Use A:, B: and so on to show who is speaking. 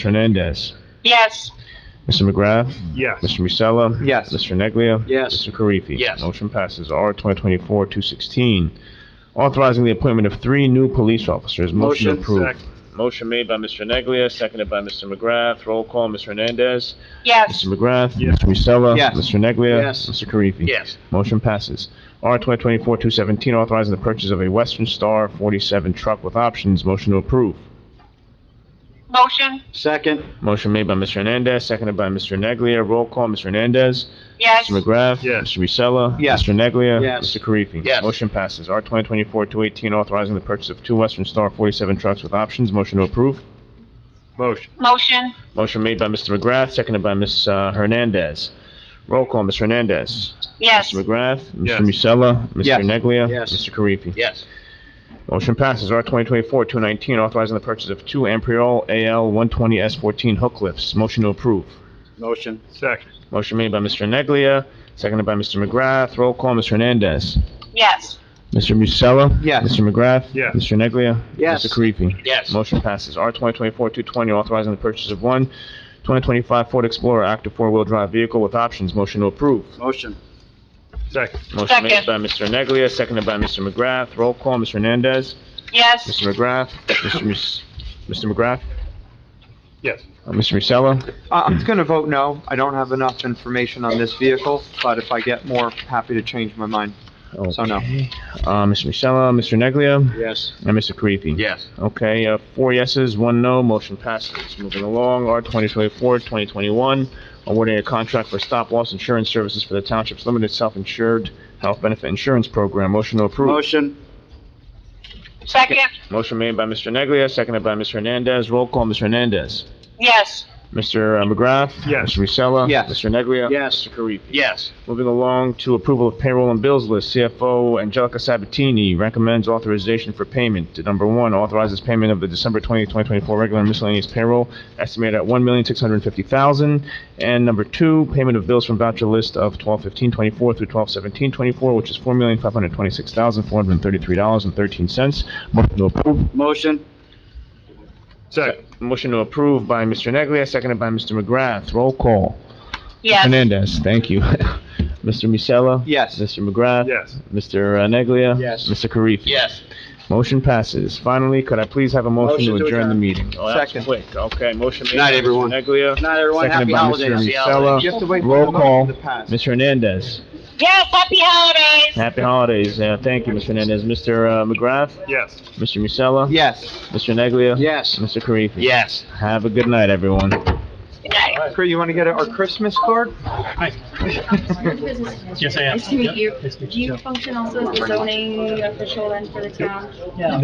A: Hernandez.
B: Yes.
A: Mr. McGrath.
C: Yes.
A: Mr. Musella.
C: Yes.
A: Mr. Neglia.
C: Yes.
A: Mr. Karifi.
C: Yes.
A: Motion passes. R twenty twenty-four two sixteen, authorizing the appointment of three new police officers. Motion
C: Motion,
A: approved. Motion made by Mr. Neglia, seconded by Mr. McGrath. Roll call, Mr. Hernandez.
B: Yes.
A: Mr. McGrath.
C: Yes.
A: Mr. Musella.
C: Yes.
A: Mr. Neglia.
C: Yes.
A: Mr. Karifi.
C: Yes.
A: Motion passes. R twenty twenty-four two seventeen, authorizing the purchase of a Western Star forty-seven truck with options. Motion to approve.
B: Motion.
C: Second.
A: Motion made by Mr. Hernandez, seconded by Mr. Neglia. Roll call, Mr. Hernandez.
B: Yes.
A: Mr. McGrath.
C: Yes.
A: Mr. Musella.
C: Yes.
A: Mr. Neglia.
C: Yes.
A: Mr. Karifi.
C: Yes.
A: Motion passes. R twenty twenty-four two eighteen, authorizing the purchase of two Western Star forty-seven trucks with options. Motion to approve.
C: Motion.
B: Motion.
A: Motion made by Mr. McGrath, seconded by Ms. uh, Hernandez. Roll call, Ms. Hernandez.
B: Yes.
A: Mr. McGrath.
C: Yes.
A: Mr. Musella. Mr.
C: Yes.
A: Neglia.
C: Yes.
A: Mr. Karifi.
C: Yes.
A: Motion passes. R twenty twenty-four two nineteen, authorizing the purchase of two Ampriol AL one twenty S fourteen hook lifts. Motion to approve.
C: Motion. Second.
A: Motion made by Mr. Neglia, seconded by Mr. McGrath. Roll call, Mr. Hernandez.
B: Yes.
A: Mr. Musella?
C: Yes.
A: Mr. McGrath?
C: Yes.
A: Mr. Neglia?
C: Yes.
A: Mr. Karifi?
C: Yes.
A: Motion passes. R twenty twenty-four two twenty, authorizing the purchase of one 2025 Ford Explorer active four-wheel drive vehicle with options. Motion to approve.
C: Motion. Second.
A: Motion made
B: Second.
A: by Mr. Neglia, seconded by Mr. McGrath. Roll call, Mr. Hernandez.
B: Yes.
A: Mr. McGrath? Mr. Mus- Mr. McGrath?
C: Yes.
A: Uh, Mr. Musella?
D: I- Uh, I'm just gonna vote no. I don't have enough information on this vehicle, but if I get more, happy to change my mind. So no.
A: Okay. Uh, Mr. Musella, Mr. Neglia,
C: Yes.
A: and Mr. Karifi?
C: Yes.
A: Okay, uh, four yeses, one no, motion passes. Moving along, R 2024-2021, awarding a contract for stop-loss insurance services for the township's limited self-insured health benefit insurance program. Motion to approve.
C: Motion.
B: Second.
A: Motion made by Mr. Neglia, seconded by Mr. Hernandez. Roll call, Mr. Hernandez.
B: Yes.
A: Mr. McGrath?
C: Yes.
A: Mr. Musella?
D: Yes.
A: Mr. Neglia?
C: Yes.
A: Mr. Karifi?
C: Yes.
A: Moving along to approval of payroll and bills list, CFO Angelica Sabatini recommends authorization for payment. Number one, authorizes payment of the December 20, 2024 regular miscellaneous payroll estimated at $1,650,000. And number two, payment of bills from voucher list of 12/15/24 through 12/17/24, which is $4,526,433.13. Motion to approve.
C: Motion. Second.
A: Motion to approve by Mr. Neglia, seconded by Mr. McGrath. Roll call.
B: Yes.
A: Hernandez, thank you. Mr. Musella?
D: Yes,
A: Mr. McGrath?
C: Yes.
A: Mr. Neglia?
C: Yes.
A: Mr. Karifi?
C: Yes.
A: Motion passes. Finally, could I please have a motion to adjourn the meeting? Oh, that was
D: Second.
A: Quick, okay, motion made.
D: Night,
A: by Mr.
D: everyone.
A: Neglia,
C: Not everyone. Happy
A: seconded by Mr.
C: holidays.
D: You have to
A: Musella.
D: wait for
A: Roll
D: the motion
A: call,
D: to pass.
A: Mr. Hernandez.
B: Yes. Happy holidays.
A: Happy holidays, yeah, thank you, Mr. Hernandez. Mr. uh, McGrath?
C: Yes.
A: Mr. Musella?
D: yes.
A: Mr. Neglia?
C: Yes.
A: Mr. Karifi?
C: Yes.
A: Have a good night, everyone.
B: Good night.
D: Chris, You wanna get our Christmas card?
E: Yes, I am. Nice to meet you. Do you function also as the zoning official then for the town?